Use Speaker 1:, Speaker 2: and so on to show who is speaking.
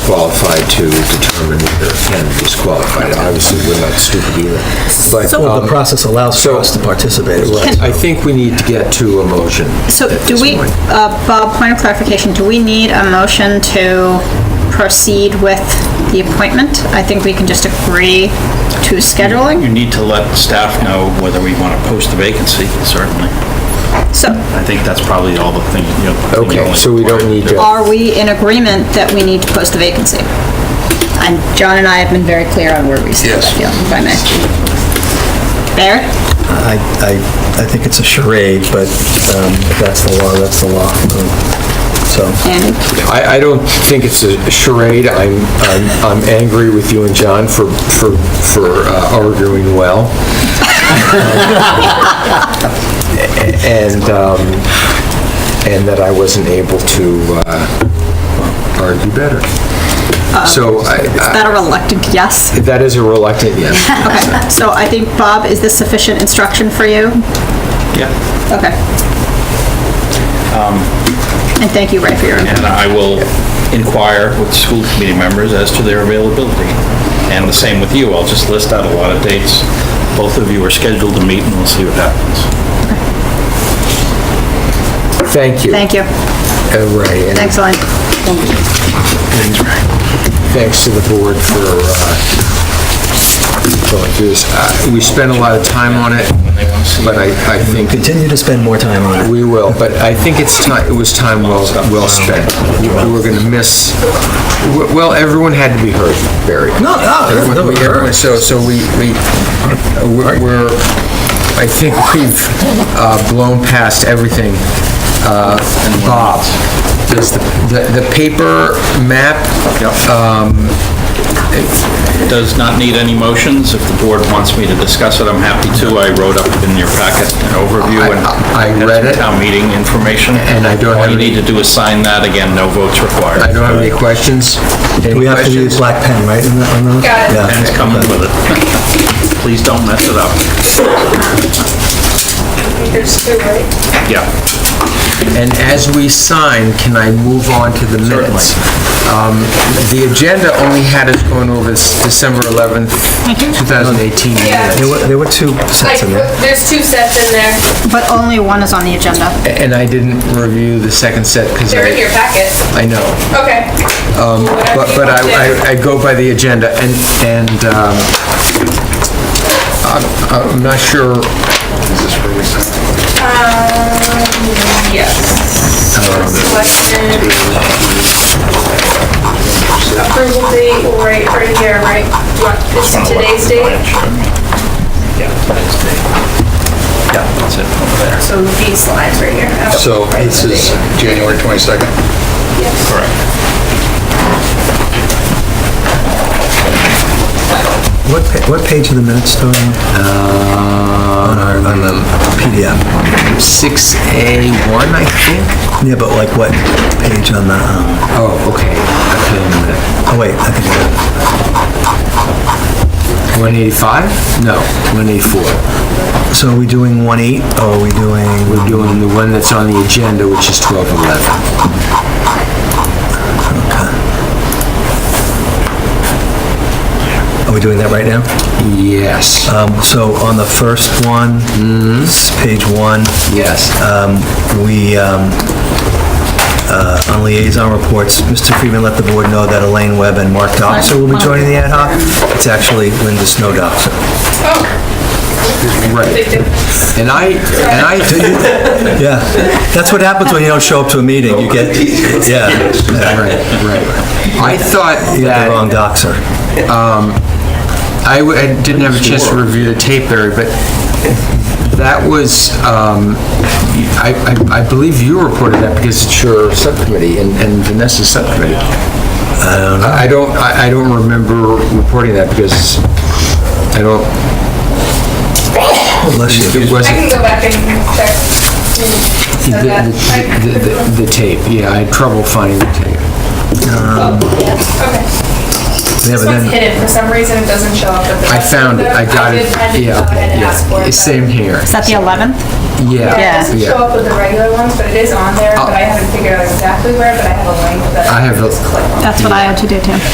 Speaker 1: qualified to determine whether Ken is qualified. Obviously, we're not stupid either. But,
Speaker 2: So-
Speaker 1: um,
Speaker 3: The process allows for us to participate.
Speaker 1: right, I think we need to get to a motion.
Speaker 2: So
Speaker 1: at
Speaker 2: do
Speaker 1: this
Speaker 2: we,
Speaker 1: point.
Speaker 2: uh, Bob, point of clarification, do we need a motion to proceed with the appointment? I think we can just agree to scheduling.
Speaker 4: You need to let staff know whether we want to post the vacancy, certainly.
Speaker 2: So
Speaker 4: I think that's probably all the thing, you know. the
Speaker 1: Okay,
Speaker 4: only
Speaker 1: so we don't need to,
Speaker 2: are we in agreement that we need to post the vacancy? And John and I have been very clear on where we stand, I feel, if I may. Barrett?
Speaker 3: I, I, I think it's a charade, but um, if that's the law, that's the law. So,
Speaker 2: Andy?
Speaker 1: I, I don't think it's a charade. I'm, I'm, I'm angry with you and John for, for, for uh, arguing well. And, um, and that I wasn't able to, uh, argue better. So I,
Speaker 2: Is that a reluctant yes?
Speaker 1: That is a reluctant yes.
Speaker 2: Okay, so I think, Bob, is this sufficient instruction for you?
Speaker 4: Yeah,
Speaker 2: Okay.
Speaker 1: Um,
Speaker 2: And thank you, Ray, for your input.
Speaker 4: and I will inquire with school committee members as to their availability. And the same with you, I'll just list out a lot of dates. Both of you are scheduled to meet, and we'll see what happens.
Speaker 1: Thank you.
Speaker 2: Thank you.
Speaker 1: Uh, Ray, and
Speaker 2: Thanks, Elaine.
Speaker 1: thanks to the board for uh, going through this. Uh, We spent a lot of time on it, but I, I think
Speaker 3: continue to spend more time on it.
Speaker 1: we will, but I think it's time, it was time well, well spent. We were going to miss, well, everyone had to be heard, Barry.
Speaker 3: No, no, there's
Speaker 1: Everyone-
Speaker 3: no
Speaker 1: we- everyone-
Speaker 3: hurry.
Speaker 1: So, so we, we, we're- we're, I think we've uh, blown past everything. Uh, Bob, does the, the- the paper map,
Speaker 4: Um, Does not need any motions. If the board wants me to discuss it, I'm happy to. I wrote up in your packet an overview and
Speaker 1: I- I
Speaker 4: had some
Speaker 1: read it.
Speaker 4: town meeting information.
Speaker 1: And I don't have
Speaker 4: All you
Speaker 1: any-
Speaker 4: need to do is sign that. Again, no votes required.
Speaker 1: I don't have any questions. Any
Speaker 3: We have to
Speaker 1: questions?
Speaker 3: use black pen, right? in that- in that?
Speaker 5: Got it.
Speaker 3: Yeah.
Speaker 4: And it's coming with it. Please don't mess it up.
Speaker 5: There's two, right?
Speaker 4: Yeah.
Speaker 1: And as we sign, can I move on to the minutes? Um, The agenda only had us going over this December 11th, 2018
Speaker 5: Yeah.
Speaker 1: minutes.
Speaker 3: There were, there were two
Speaker 5: Like,
Speaker 3: sets in there.
Speaker 5: there's two sets in there.
Speaker 2: But only one is on the agenda.
Speaker 1: And I didn't review the second set because
Speaker 5: They're in your
Speaker 1: I,
Speaker 5: packet.
Speaker 1: I know.
Speaker 5: Okay. Whatever
Speaker 1: Um, But,
Speaker 5: you
Speaker 1: but
Speaker 5: want to do.
Speaker 1: I- I, I go by the agenda, and, and um, I'm I'm not sure,
Speaker 5: Um, Yes. Selected. Approval date, right, right here, right? Do you want- It's today's date,
Speaker 4: Yeah, today's date. Yeah, that's it, over there.
Speaker 5: so these lines right here. Oh,
Speaker 6: So
Speaker 5: right,
Speaker 6: this
Speaker 5: the
Speaker 6: is
Speaker 5: date.
Speaker 6: January 22nd.
Speaker 5: Yes.
Speaker 4: Correct.
Speaker 3: What, pa- what page of the minutes, Tony? On our, on the PDF.
Speaker 1: 6A1, I think?
Speaker 3: Yeah, but like what page on the, um,
Speaker 1: Oh, okay. Okay,
Speaker 3: oh wait, I think, I-
Speaker 1: 185? No, 184.
Speaker 3: so are we doing one eight, or oh, are we doing?
Speaker 1: We're doing the one that's on the agenda, which is 1211.
Speaker 3: Are we doing that right now?
Speaker 1: Yes,
Speaker 3: Um, So on the first one, s- page one,
Speaker 1: yes.
Speaker 3: um, we, um, uh, on liaison reports, Mr. Freeman let the board know that Elaine Webb and Mark Doxer will be joining the ad hoc. It's actually Linda Snow Doxer.
Speaker 5: Oh,
Speaker 1: Right.
Speaker 5: big difference.
Speaker 1: And I, and I,
Speaker 3: Yeah, that's what happens when you don't show up to a meeting, you get, yeah,
Speaker 1: right, right. I thought
Speaker 3: you get
Speaker 1: that...
Speaker 3: the wrong doxer.
Speaker 1: I w- I didn't have a chance to review the tape, Larry, but that was, um, I I- I believe you reported that because it's your subcommittee and and Vanessa's subcommittee. I don't know. I don't, I I don't remember reporting that because I don't,
Speaker 3: Bless you.
Speaker 1: it
Speaker 5: I
Speaker 1: wasn't
Speaker 5: can go back and check.
Speaker 1: the-
Speaker 5: Send that.
Speaker 1: the the- the- the tape. Yeah, I had trouble finding the tape.
Speaker 5: Okay.
Speaker 3: They never
Speaker 5: This one's
Speaker 3: then.
Speaker 5: hidden, for some reason it doesn't show up. at the
Speaker 1: I
Speaker 5: rest of
Speaker 1: found it,
Speaker 5: them.
Speaker 1: I got
Speaker 5: did-
Speaker 1: it.
Speaker 5: I did go
Speaker 1: Yeah,
Speaker 5: ahead and
Speaker 1: yeah.
Speaker 5: ask for it.
Speaker 1: Same here.
Speaker 2: Is that the 11th?
Speaker 5: Yeah, it
Speaker 1: Yeah,
Speaker 5: doesn't
Speaker 1: yeah.
Speaker 5: show up with the regular ones, but it is on there, but I haven't figured out exactly where, but I have a link that
Speaker 1: I
Speaker 5: I
Speaker 1: have
Speaker 5: can
Speaker 1: a-
Speaker 5: just click on.
Speaker 2: That's what I had to do too.